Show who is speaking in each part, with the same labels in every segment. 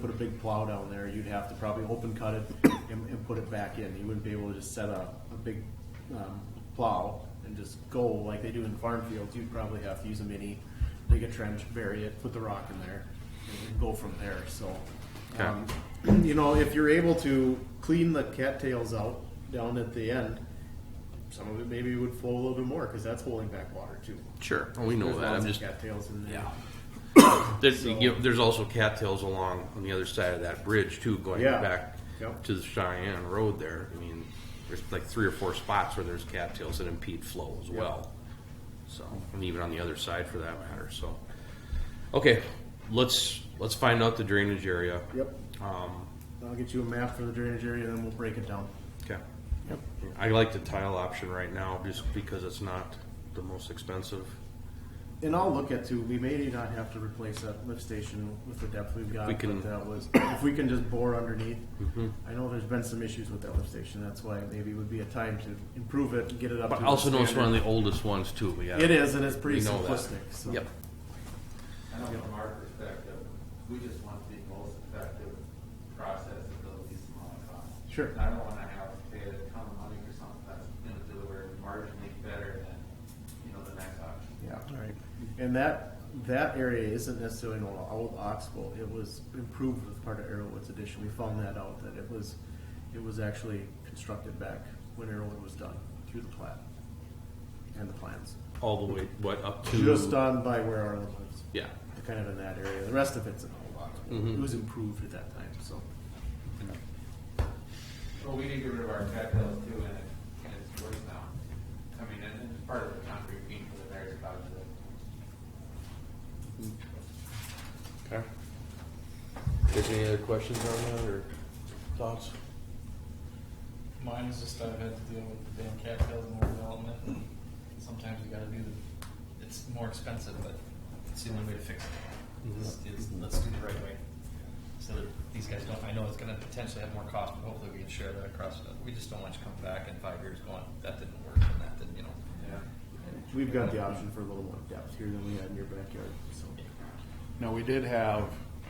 Speaker 1: put a big plow down there, you'd have to probably open cut it and, and put it back in. You wouldn't be able to just set a, a big, um, plow and just go like they do in farm fields. You'd probably have to use a mini, dig a trench, bury it, put the rock in there, and go from there, so. um, You know, if you're able to clean the cattails out down at the end, some of it maybe would flow a little bit more, cause that's holding back water too.
Speaker 2: Sure, Oh, we know
Speaker 1: There's
Speaker 2: that. I'm
Speaker 1: lots of
Speaker 2: just
Speaker 1: Cattails in there.
Speaker 2: Yeah. there's, you know, there's also cattails along on the other side of that bridge too, going
Speaker 1: Yeah.
Speaker 2: back
Speaker 1: Yep.
Speaker 2: to the Cheyenne Road there. I mean, there's like three or four spots where there's cattails that impede flow as well. So, and even on the other side for that matter. So, okay, let's let's find out the drainage area.
Speaker 1: Yep.
Speaker 2: Um,
Speaker 1: I'll get you a map for the drainage area, then we'll break it down.
Speaker 2: Okay. Yep. I like the tile option right now just because it's not the most expensive.
Speaker 1: And I'll look at too, we may not have to replace that lift station with the depth we've got,
Speaker 2: We
Speaker 1: but
Speaker 2: can- Mm-hmm.
Speaker 1: that was, if we can just bore underneath. I know there's been some issues with that lift station, that's why maybe it would be a time to improve it and get it up to.
Speaker 2: But I
Speaker 1: the
Speaker 2: also know it's one of
Speaker 1: standard.
Speaker 2: the oldest ones too. We got
Speaker 1: It is, and it's pretty
Speaker 2: We know that.
Speaker 1: simplistic, so.
Speaker 2: Yep.
Speaker 3: I know from our perspective, we just want the most effective process at the least amount of cost.
Speaker 1: Sure.
Speaker 3: I don't wanna have to pay a ton of money for something that's gonna deliver marginally better than, you know, the next option.
Speaker 1: Yeah.
Speaker 2: Right.
Speaker 1: And that, that area isn't necessarily an old oxbow, it was improved with part of Arrowwood's addition, we found that out, that it was, it was actually constructed back when Arrowwood was done, through the plat. And the plans,
Speaker 2: All the way what up to
Speaker 1: just done by where our lives,
Speaker 2: Yeah.
Speaker 1: kind of in that area, the rest of it's an old
Speaker 4: Mm-hmm.
Speaker 1: oxbow, it was improved at that time, so.
Speaker 3: Well, we did get rid of our cattails too, and it, and it's worse now. I mean, and, and part of the concrete being for the various projects.
Speaker 2: Okay. There's any other questions on that or thoughts?
Speaker 5: Mine is just I've had to deal with the damn cattails and overdevelopment. and Sometimes you gotta do the, it's more expensive, but it's the only way to fix
Speaker 4: Mm-hmm.
Speaker 5: it. Is, is let's do it the right way. So that these guys don't, I know it's gonna potentially have more cost, but hopefully we can share that across. the- We just don't want you to come back in five years going, that didn't work and that didn't, you know.
Speaker 3: Yeah.
Speaker 1: We've got the option for a little more depth here than we had in your backyard, so.
Speaker 4: Now, we did have,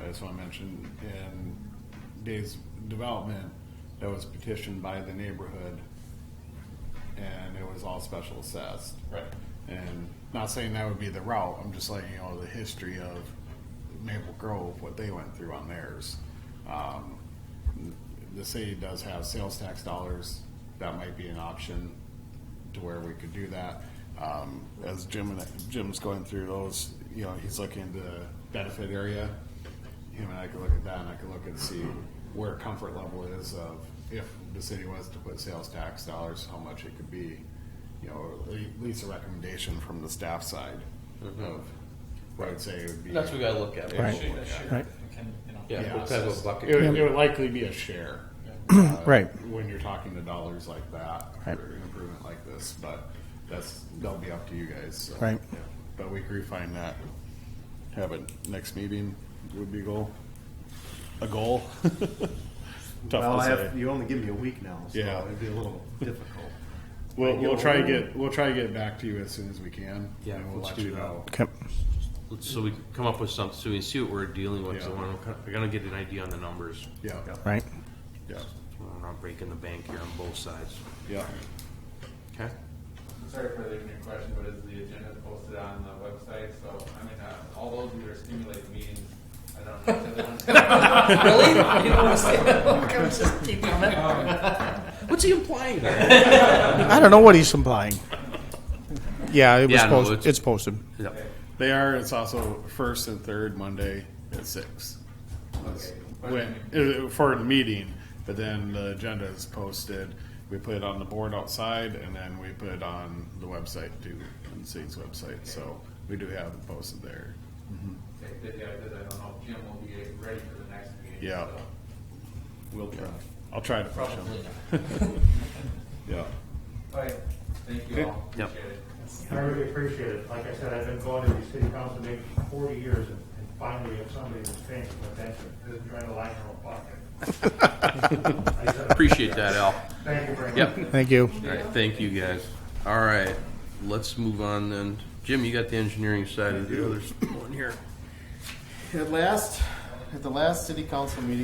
Speaker 4: I just want to mention, in Dave's development, that was petitioned by the neighborhood, and it was all special assessed.
Speaker 5: Right.
Speaker 4: And not saying that would be the route, I'm just letting you know the history of Maple Grove, what they went through on theirs. Um, The city does have sales tax dollars, that might be an option to where we could do that. Um, As Jim, and Jim's going through those, you know, he's looking into benefit area. Him and I could look at that, and I could look and see where comfort level is of if the city was to put sales tax dollars, how much it could be you know, or at le- at least a recommendation from the staff side of what I'd say would be.
Speaker 2: Mm-hmm. That's what we gotta look at.
Speaker 4: Right.
Speaker 5: Share that, share that, we Can, you know.
Speaker 2: Yeah,
Speaker 4: Yeah,
Speaker 2: what type
Speaker 4: so
Speaker 2: of bucket?
Speaker 4: It would, it would likely be a share. uh,
Speaker 6: Right.
Speaker 4: When you're talking to dollars like that, for
Speaker 6: Right.
Speaker 4: an improvement like this, but that's, that'll be up to you guys. so,
Speaker 6: Right.
Speaker 4: yeah. But we could refine that, have it next meeting would be goal, a goal.
Speaker 1: Well,
Speaker 4: Tough
Speaker 1: I
Speaker 4: to
Speaker 1: have,
Speaker 4: say.
Speaker 1: you only give me a week now, so
Speaker 4: Yeah.
Speaker 1: it'd be a little difficult.
Speaker 4: We'll, we'll try to get, we'll try to get it back to you as soon as we can.
Speaker 2: Yeah,
Speaker 4: and we'll
Speaker 2: let's
Speaker 4: let
Speaker 2: do
Speaker 4: you
Speaker 2: that.
Speaker 4: know.
Speaker 6: Okay.
Speaker 2: So we come up with something, so we see what we're dealing with, so
Speaker 4: Yeah.
Speaker 2: we're- we're gonna get an idea on the numbers.
Speaker 4: Yeah,
Speaker 6: Right.
Speaker 4: yeah,
Speaker 2: We're not breaking the bank here on both sides.
Speaker 4: yeah.
Speaker 2: Okay?
Speaker 3: Sorry for leaving your question, but is the agenda posted on the website? So, I mean, uh, all those who are stimulating meetings, I don't know. if everyone's-
Speaker 5: Really? You don't wanna say that? Okay, let's just keep coming.
Speaker 2: What's he implying there?
Speaker 6: I don't know what he's implying. Yeah, it was
Speaker 2: Yeah, no,
Speaker 6: posted.
Speaker 2: it's-
Speaker 6: it's, posted.
Speaker 2: Yep.
Speaker 4: They are. It's also first and third Monday at six. That's When uh, for the meeting, but then the agenda is posted. We put it on the board outside, and then we put it on the website too, on the city's website. So we do have it posted there.
Speaker 3: Okay, good, yeah, because I don't know if Jim will be ready for the next meeting.
Speaker 4: Yeah.
Speaker 3: so.
Speaker 4: We'll try. I'll try to push them.
Speaker 5: Probably not.
Speaker 4: Yeah.
Speaker 3: All right, thank you all,
Speaker 2: Yep.
Speaker 3: appreciate it.
Speaker 7: I really appreciate it. Like I said, I've been going to these city council meetings for forty years and and finally have somebody that's paying some attention, isn't trying to line their own pocket. I said,
Speaker 2: Appreciate that, Al.
Speaker 7: Thank you very much.
Speaker 2: Yep.
Speaker 6: Thank you.
Speaker 2: All right, thank you guys. All right, let's move on then. Jim, you got the engineering side of the other one here.
Speaker 1: At last,
Speaker 4: at the last city council meeting,